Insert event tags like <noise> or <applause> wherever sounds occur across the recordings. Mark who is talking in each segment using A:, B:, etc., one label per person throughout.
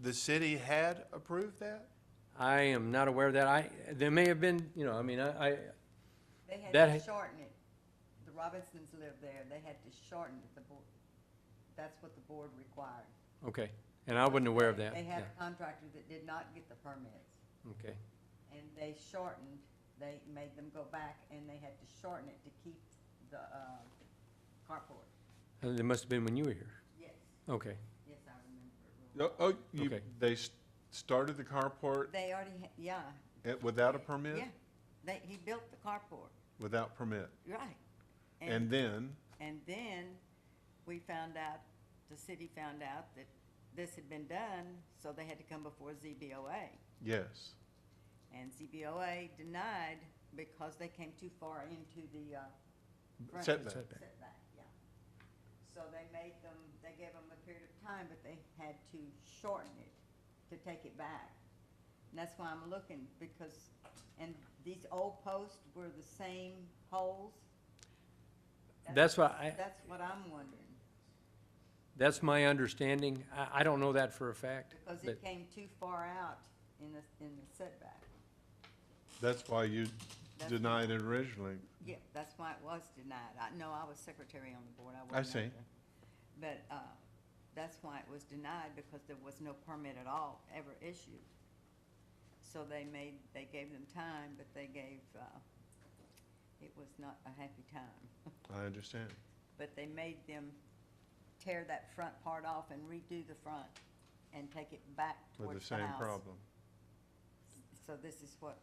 A: the city had approved that?
B: I am not aware of that. I, there may have been, you know, I mean, I, I,
C: They had
B: That
C: to
B: ha-
C: shorten it. The Robinsons lived there, they had to shorten it, the board, that's what the board required.
B: okay, and I wasn't aware of that.
C: They had
B: Yeah,
C: a contractor that did not get the permits,
B: Okay,
C: and they shortened, they made them go back, and they had to shorten it to keep the, uh, carport.
B: Uh, there must have been when you were here.
C: Yes,
B: Okay,
C: yes, I remember it real
A: Oh, Oh, you,
B: Okay.
A: they s- started the carport
C: well. They already, ha- yeah,
A: at- without a permit?
C: yeah, they, he built the carport,
A: Without permit.
C: right.
A: And then,
C: And then we found out, the city found out that this had been done, so they had to come before ZBOA.
A: yes,
C: And ZBOA denied because they came too far into the, uh. front
A: setback.
B: Setback.
C: Setback, yeah. So they made them, they gave them a period of time, but they had to shorten it to take it back. And that's why I'm looking, because, and these old posts were the same holes.
B: that's why I,
C: That's what I'm wondering.
B: that's my understanding. I, I don't know that for a fact,
C: Because
B: but,
C: it came too far out in the, in the setback.
A: that's why you
C: That's-
A: denied it originally.
C: Yeah, that's why it was denied. I, no, I was secretary on the board, I wasn't.
A: I
C: up
A: see.
C: there. But, uh, that's why it was denied, because there was no permit at all ever issued. So they made, they gave them time, but they gave, uh, it was not a happy time.
A: I understand.
C: But they made them tear that front part off and redo the front and take it back
A: With the
C: towards the house.
A: same problem.
C: So this is what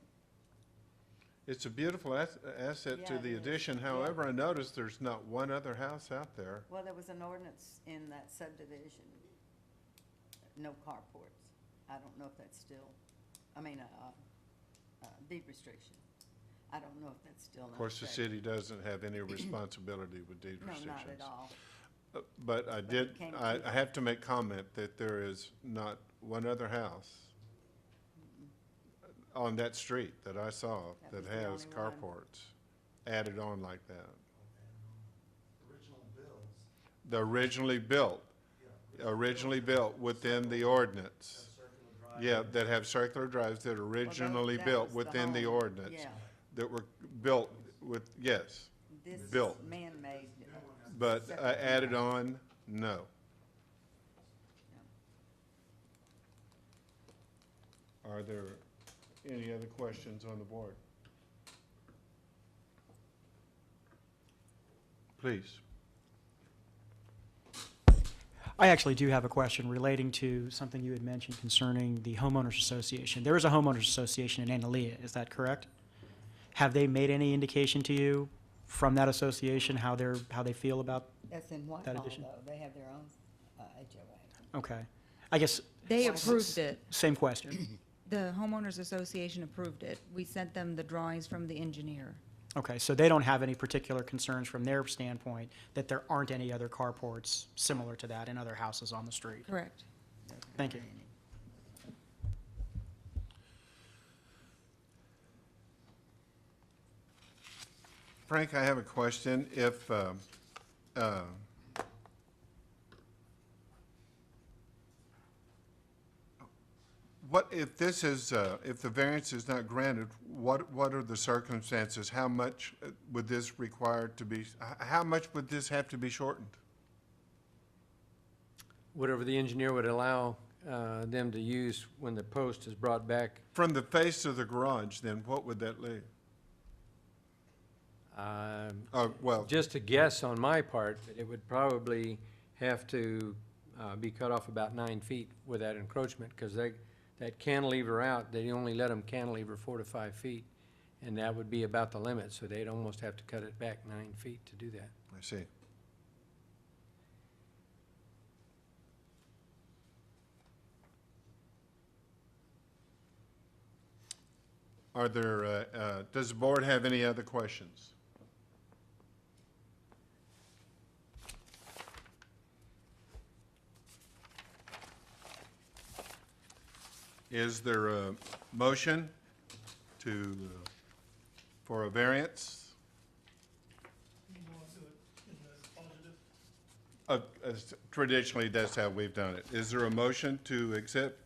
A: It's a beautiful as- asset to
C: Yeah, it
A: the
C: is.
A: addition. However, I noticed there's not one other house out there.
C: Well, there was an ordinance in that subdivision, no carports. I don't know if that's still, I mean, uh, uh, deed restriction. I don't know if that's still. in
A: Of course, the
C: effect.
A: city doesn't have
C: <clears throat>
A: any responsibility with deed
C: No,
A: restrictions.
C: not at all.
A: Uh, But I
C: But it
A: did,
C: came
A: I,
C: through.
A: I have to make comment that there is not one other house on that street that I saw
C: That
A: that
C: was the
A: has
C: only one.
A: carports added on like that.
D: um, original bills,
A: The originally built,
D: yeah.
A: originally built within the ordinance.
D: Circular drive.
A: Yeah, that have circular drives that
C: Well, that-
A: originally
C: that
A: built
C: was
A: within the
C: home.
A: ordinance.
C: Yeah,
A: That were built with, yes,
C: this is
A: Built.
C: man-made.
A: but uh,
C: Separate.
A: added on, no. Are there any other questions on the board? Please.
E: I actually do have a question relating to something you had mentioned concerning the homeowners association. There is a homeowners association in Analia, is that correct? Have they made any indication to you from that association how they're, how they feel about,
C: That's in Whitehall,
E: addition?
C: though. They have their own, uh, HOA.
E: okay. I guess,
F: They
E: Yes.
F: approved it.
E: same question.
F: The homeowners association approved it. We sent them the drawings from the engineer.
E: Okay, so they don't have any particular concerns from their standpoint that there aren't any other carports similar to that in other houses on the street?
F: Correct.
E: Thank you.
A: Frank, I have a question. If, um, uh, what, if this is, uh, if the variance is not granted, what, what are the circumstances? How much uh, would this require to be, h- how much would this have to be shortened?
B: whatever the engineer would allow, uh, them to use when the post is brought back,
A: From the face of the garage, then what would that leave?
B: um,
A: Oh, well,
B: Just a guess on my part, but it would probably have to uh, be cut off about nine feet with that encroachment, because they, that cantilever out, they only let them cantilever four to five feet, and that would be about the limit, so they'd almost have to cut it back nine feet to do that.
A: I see. Are there, uh, uh, does the board have any other questions? Is there a motion to, uh, for a variance?
D: You want to, in the positive,
A: Uh, as Traditionally, that's how we've done it. Is there a motion to accept